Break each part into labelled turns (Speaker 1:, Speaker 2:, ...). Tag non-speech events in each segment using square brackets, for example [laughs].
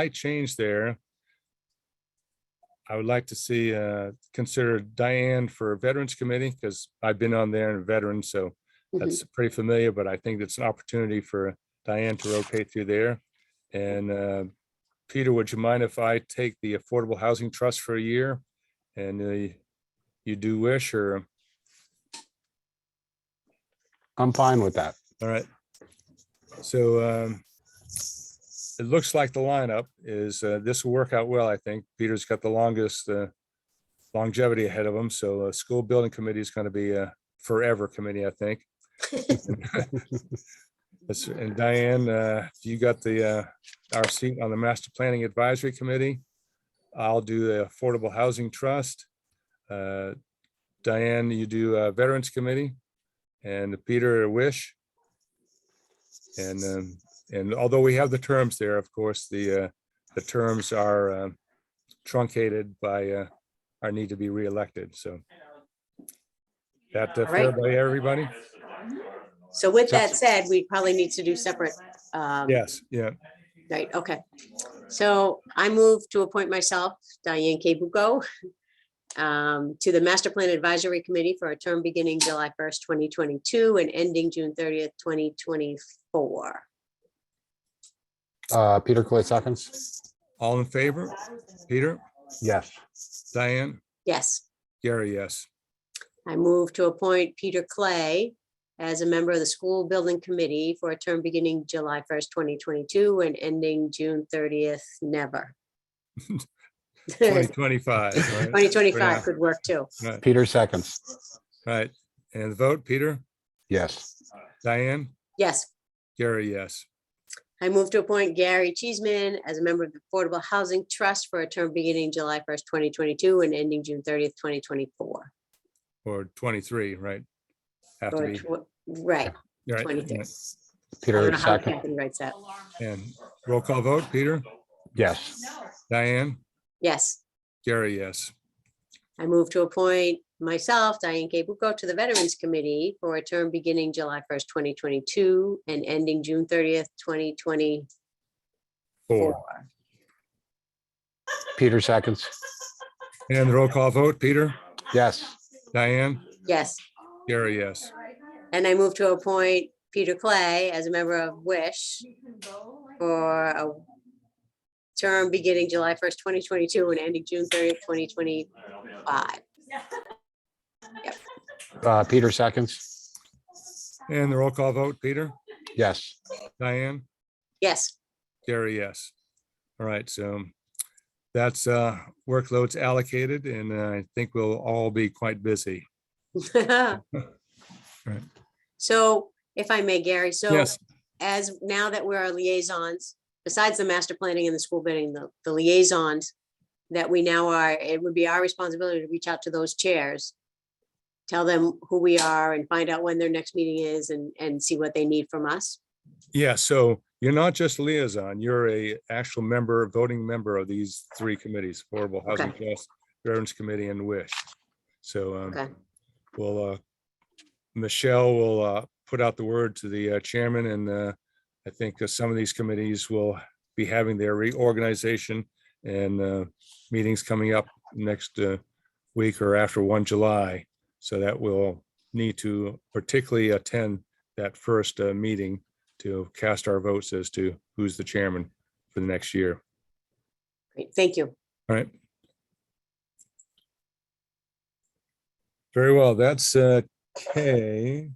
Speaker 1: slight change there. I would like to see, uh, consider Diane for Veterans Committee, because I've been on there and veteran, so that's pretty familiar, but I think it's an opportunity for Diane to rotate through there. And, uh, Peter, would you mind if I take the Affordable Housing Trust for a year? And uh, you do wish, or,
Speaker 2: I'm fine with that.
Speaker 1: all right. So um, it looks like the lineup is, uh, this will work out well, I think. Peter's got the longest uh, longevity ahead of him, so uh, School Building Committee is going to be a forever committee, I think. That's- And Diane, uh, you got the, uh, our seat on the Master Planning Advisory Committee. I'll do the Affordable Housing Trust. Uh, Diane, you do uh, Veterans Committee and Peter Wish. And, um, and although we have the terms there, of course, the, uh, the terms are um, truncated by uh, our need to be reelected, so. That uh, fair
Speaker 3: Alright.
Speaker 1: by everybody?
Speaker 3: So with that said, we probably need to do separate. um,
Speaker 1: Yes, yeah.
Speaker 3: Right, okay. So I move to appoint myself, Diane K. Bucco, um, to the Master Plan Advisory Committee for a term beginning July 1st, 2022 and ending June 30th, 2024.
Speaker 2: Uh, Peter Clay seconds.
Speaker 1: All in favor? Peter,
Speaker 2: Yes.
Speaker 1: Diane,
Speaker 3: Yes,
Speaker 1: Gary, yes.
Speaker 3: I move to appoint Peter Clay as a member of the School Building Committee for a term beginning July 1st, 2022 and ending June 30th, never. [laughs]
Speaker 1: 2025. right?
Speaker 3: 2025 could work too.
Speaker 1: Right,
Speaker 2: Peter seconds.
Speaker 1: Right. And the vote, Peter,
Speaker 2: Yes.
Speaker 1: Diane,
Speaker 3: Yes,
Speaker 1: Gary, yes.
Speaker 3: I move to appoint Gary Cheeseman as a member of the Affordable Housing Trust for a term beginning July first, twenty twenty-two and ending June thirtieth, twenty twenty-four.
Speaker 1: Or 23, right? Have to
Speaker 3: Or,
Speaker 1: be.
Speaker 3: tw- right,
Speaker 1: right,
Speaker 3: twenty-three. I don't
Speaker 2: Peter
Speaker 3: know how
Speaker 2: second.
Speaker 3: Catherine writes that.
Speaker 1: And roll call vote, Peter,
Speaker 2: Yes.
Speaker 1: Diane,
Speaker 3: Yes,
Speaker 1: Gary, yes.
Speaker 3: I move to appoint myself, Diane K. Bucco, to the Veterans Committee for a term beginning July first, twenty twenty-two and ending June thirtieth, twenty twenty-four.
Speaker 1: Four.
Speaker 2: Peter seconds.
Speaker 1: And the roll call vote, Peter,
Speaker 2: Yes.
Speaker 1: Diane,
Speaker 3: Yes,
Speaker 1: Gary, yes.
Speaker 3: and I move to appoint Peter Clay as a member of Wish for a term beginning July first, twenty twenty-two and ending June thirtieth, twenty twenty-five.
Speaker 2: Uh, Peter seconds.
Speaker 1: And the roll call vote, Peter,
Speaker 2: Yes.
Speaker 1: Diane,
Speaker 3: Yes, [laughs]
Speaker 1: Gary, yes. All right, so that's uh workloads allocated and uh, I think we'll all be quite busy.
Speaker 3: so if I may, Gary, so
Speaker 1: Yes,
Speaker 3: as now that we're our liaisons, besides the master planning and the school building, the, the liaisons that we now are, it would be our responsibility to reach out to those chairs, tell them who we are and find out when their next meeting is and, and see what they need from us.
Speaker 1: Yeah, so you're not just liaison, you're a actual member, voting member of these three committees, Affordable Housing Trust, Veterans Committee and Wish. So
Speaker 3: Okay.
Speaker 1: um, we'll, uh, Michelle will uh, put out the word to the uh, chairman and uh, I think uh, some of these committees will be having their reorganization and uh, meetings coming up next uh, week or after 1 July. So that we'll need to particularly attend that first uh, meeting to cast our votes as to who's the chairman for the next year.
Speaker 3: Great, thank you.
Speaker 1: All right. Very well, that's uh, K.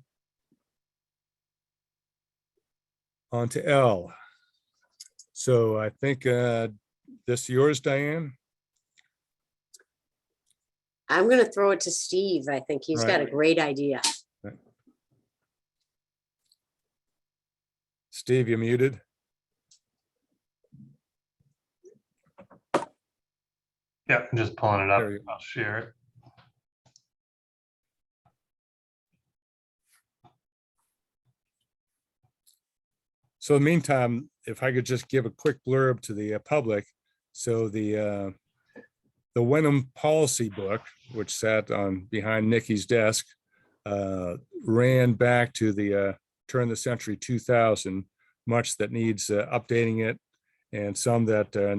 Speaker 1: On to L. So I think uh, this yours, Diane?
Speaker 3: I'm gonna throw it to Steve. I think he's got a
Speaker 1: Right.
Speaker 3: great idea.
Speaker 1: Steve, you muted?
Speaker 4: Yep, I'm just pulling it
Speaker 2: Uh,
Speaker 1: There
Speaker 4: up.
Speaker 1: you
Speaker 4: I'll share it.
Speaker 1: So in the meantime, if I could just give a quick blurb to the uh, public. So the, uh, the Wenham Policy Book, which sat on behind Nikki's desk, uh, ran back to the uh, turn of the century 2000, much that needs uh, updating it and some that uh, are